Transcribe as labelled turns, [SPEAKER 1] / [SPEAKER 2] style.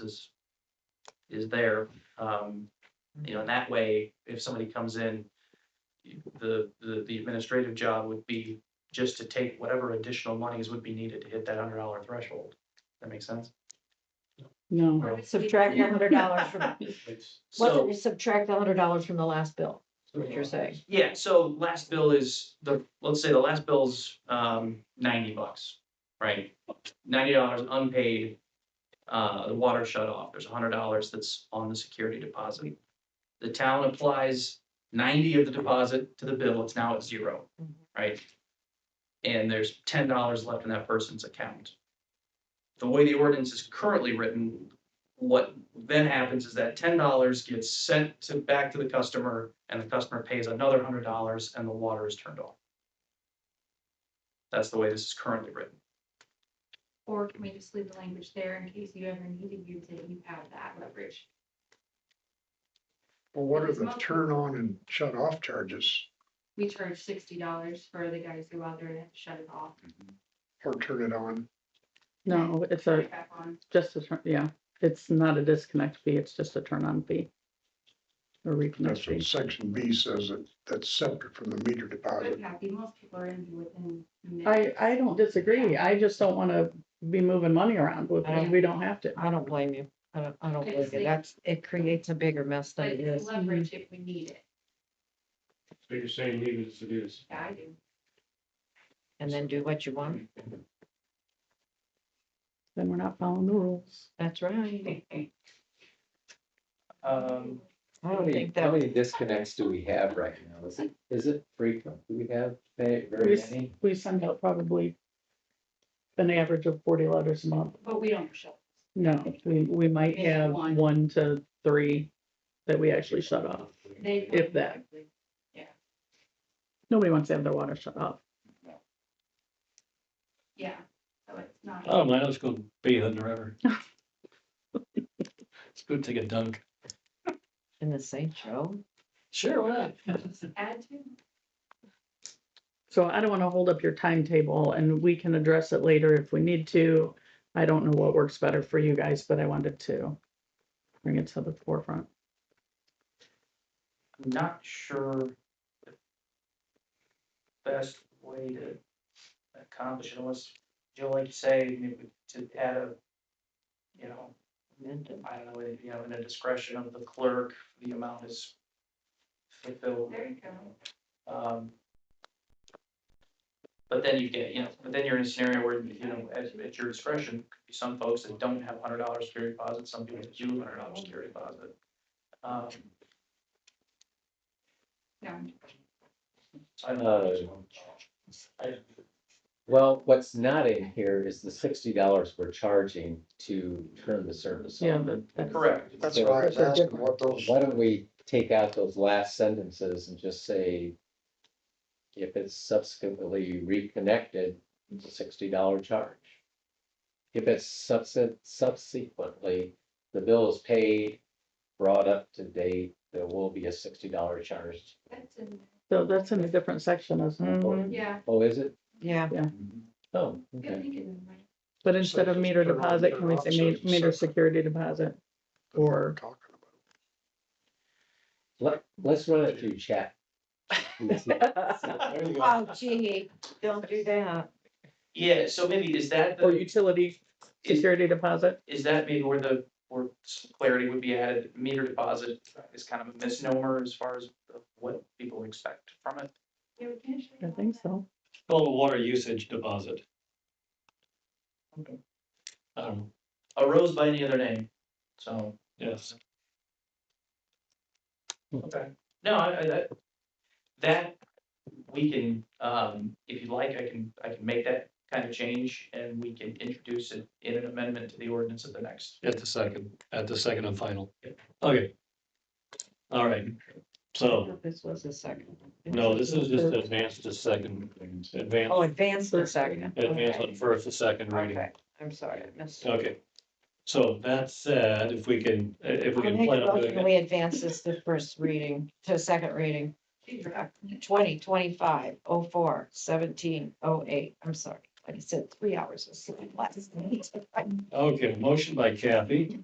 [SPEAKER 1] is, is there. Um, you know, and that way, if somebody comes in, the, the, the administrative job would be just to take whatever additional monies would be needed to hit that hundred dollar threshold. That makes sense?
[SPEAKER 2] No,
[SPEAKER 1] Well-
[SPEAKER 3] Subtract a hundred dollars from,
[SPEAKER 4] It's,
[SPEAKER 3] wasn't
[SPEAKER 1] So,
[SPEAKER 3] it subtract a hundred dollars from the last bill, is what you're saying?
[SPEAKER 1] yeah, so last bill is the, let's say the last bill's, um, ninety bucks, right? Ninety dollars unpaid, uh, the water shut off, there's hundred dollars that's on the security deposit. The town applies ninety of the deposit to the bill, it's now at zero,
[SPEAKER 3] Mhm.
[SPEAKER 1] right? And there's ten dollars left in that person's account. The way the ordinance is currently written, what then happens is that ten dollars gets sent to, back to the customer, and the customer pays another hundred dollars, and the water is turned off. That's the way this is currently written.
[SPEAKER 2] or can we just leave the language there in case you ever need to use it, you have that leverage?
[SPEAKER 5] Well, what are
[SPEAKER 2] Because
[SPEAKER 5] the
[SPEAKER 2] most-
[SPEAKER 5] turn on and shut off charges
[SPEAKER 2] We charge sixty dollars for the guys who go out there and have to shut it off.
[SPEAKER 5] or turn it on?
[SPEAKER 6] No, it's
[SPEAKER 2] turn
[SPEAKER 6] a,
[SPEAKER 2] it back on.
[SPEAKER 6] just a, turn. yeah, it's not a disconnect fee, it's just a turn on fee. A reconnect
[SPEAKER 5] That's what
[SPEAKER 6] fee.
[SPEAKER 5] section B says, that that's separate from the meter
[SPEAKER 2] But
[SPEAKER 5] deposit.
[SPEAKER 2] happy, most people are gonna be within. minutes.
[SPEAKER 6] I, I don't disagree, I just don't wanna be moving money around, with it. we don't have to.
[SPEAKER 3] I don't blame you. I don't, I don't
[SPEAKER 2] I
[SPEAKER 3] blame
[SPEAKER 2] just
[SPEAKER 3] you.
[SPEAKER 2] think-
[SPEAKER 3] That's, it creates a bigger mess than
[SPEAKER 2] But
[SPEAKER 3] it
[SPEAKER 2] it's
[SPEAKER 3] is.
[SPEAKER 2] leverage if we need it,
[SPEAKER 4] so you're saying leave it as it is.
[SPEAKER 2] Yeah, I do.
[SPEAKER 3] And then do what you want.
[SPEAKER 6] Then we're not following the rules.
[SPEAKER 3] That's right.
[SPEAKER 1] Um,
[SPEAKER 3] I
[SPEAKER 7] How
[SPEAKER 3] don't
[SPEAKER 7] many,
[SPEAKER 3] think
[SPEAKER 7] how
[SPEAKER 3] that,
[SPEAKER 7] many disconnects do we have right now? Is it, is it frequent? Do we have ve- very
[SPEAKER 6] Yes.
[SPEAKER 7] many?
[SPEAKER 6] We send out probably an average of forty letters a month.
[SPEAKER 2] But we don't shut.
[SPEAKER 6] No, we, we might
[SPEAKER 2] Maybe
[SPEAKER 6] have
[SPEAKER 2] one.
[SPEAKER 6] one to three that we actually shut off.
[SPEAKER 2] They.
[SPEAKER 6] If that. Nobody wants to have their water shut off.
[SPEAKER 2] Yeah, so it's not.
[SPEAKER 8] Oh, man, let's go bathe in the river. Let's go take a dunk.
[SPEAKER 3] in the same show.
[SPEAKER 8] Sure, why not?
[SPEAKER 2] Add to.
[SPEAKER 6] So I don't want to hold up your timetable and we can address it later if we need to. I don't know what works better for you guys, but I wanted to bring it to the forefront.
[SPEAKER 1] I'm not sure the best way to accomplish it was, Joe, like you say, maybe to add a, you know,
[SPEAKER 3] amended.
[SPEAKER 1] I don't know, you know, in the discretion of the clerk, the amount is fulfilled.
[SPEAKER 2] There you go.
[SPEAKER 1] Um, But then you get, you know, but then you're in a scenario where, you know, at, at your discretion, could be some folks that don't have hundred dollar security deposit, some people that do hundred dollar security deposit. Um,
[SPEAKER 2] No,
[SPEAKER 1] I don't know.
[SPEAKER 7] Uh, Well, what's not in here is the sixty dollars we're charging to turn the service
[SPEAKER 6] Yeah,
[SPEAKER 7] on.
[SPEAKER 6] but that's,
[SPEAKER 1] Correct.
[SPEAKER 5] That's
[SPEAKER 7] So-
[SPEAKER 5] why I was asking what those,
[SPEAKER 7] Why don't we take out those last sentences and just say if it's subsequently reconnected, it's a sixty dollar charge. If it's subse- subsequently, the bill is paid, brought up to date, there will be a sixty dollar charge.
[SPEAKER 2] that's in,
[SPEAKER 6] so that's in a different section, isn't it?
[SPEAKER 7] Mhm.
[SPEAKER 2] yeah,
[SPEAKER 7] Oh, is it?
[SPEAKER 3] Yeah,
[SPEAKER 7] Oh,
[SPEAKER 2] I
[SPEAKER 7] okay.
[SPEAKER 2] think it's in there.
[SPEAKER 6] But instead of
[SPEAKER 5] just
[SPEAKER 6] meter
[SPEAKER 5] turn on,
[SPEAKER 6] deposit,
[SPEAKER 5] turn
[SPEAKER 6] can we
[SPEAKER 5] off,
[SPEAKER 6] say
[SPEAKER 5] so
[SPEAKER 6] me-
[SPEAKER 5] it's
[SPEAKER 6] meter
[SPEAKER 5] separate.
[SPEAKER 6] security deposit?
[SPEAKER 5] we're
[SPEAKER 6] Or,
[SPEAKER 5] talking about.
[SPEAKER 7] Let, let's run it through chat.
[SPEAKER 8] There you go.
[SPEAKER 3] oh gee, don't do that.
[SPEAKER 1] Yeah, so maybe is that,
[SPEAKER 6] or
[SPEAKER 1] the
[SPEAKER 6] utility
[SPEAKER 1] is,
[SPEAKER 6] security deposit?
[SPEAKER 1] is that maybe where the, where some clarity would be added? Meter deposit is kind of a misnomer as far as what people expect from it.
[SPEAKER 2] Yeah, we can shut it
[SPEAKER 6] I
[SPEAKER 2] off
[SPEAKER 6] think
[SPEAKER 2] now.
[SPEAKER 6] so.
[SPEAKER 8] Call the water usage deposit.
[SPEAKER 1] Okay.
[SPEAKER 8] I don't know,
[SPEAKER 1] Arose by any other name, so.
[SPEAKER 8] yes.
[SPEAKER 1] Okay, no, I, I, that, that, we can, um, if you'd like, I can, I can make that kind of change and we can introduce it in an amendment to the ordinance at the next.
[SPEAKER 8] At the second, at the second and final. Okay. All right, so,
[SPEAKER 3] This was a second.
[SPEAKER 8] Oh. no, this is just advanced to second,
[SPEAKER 3] Oh,
[SPEAKER 8] advance,
[SPEAKER 3] advance the second.
[SPEAKER 8] advance
[SPEAKER 3] Okay.
[SPEAKER 8] on first to second reading.
[SPEAKER 3] Okay, I'm sorry, I missed.
[SPEAKER 8] Okay. So that said, if we can, if
[SPEAKER 3] I'll
[SPEAKER 8] we can
[SPEAKER 3] make a
[SPEAKER 8] plan on doing
[SPEAKER 3] motion,
[SPEAKER 8] it.
[SPEAKER 3] we advance this to first reading, to second reading. Twenty twenty-five oh four seventeen oh eight, I'm sorry, I said three hours of sleep last night.
[SPEAKER 8] Okay, motion by Kathy,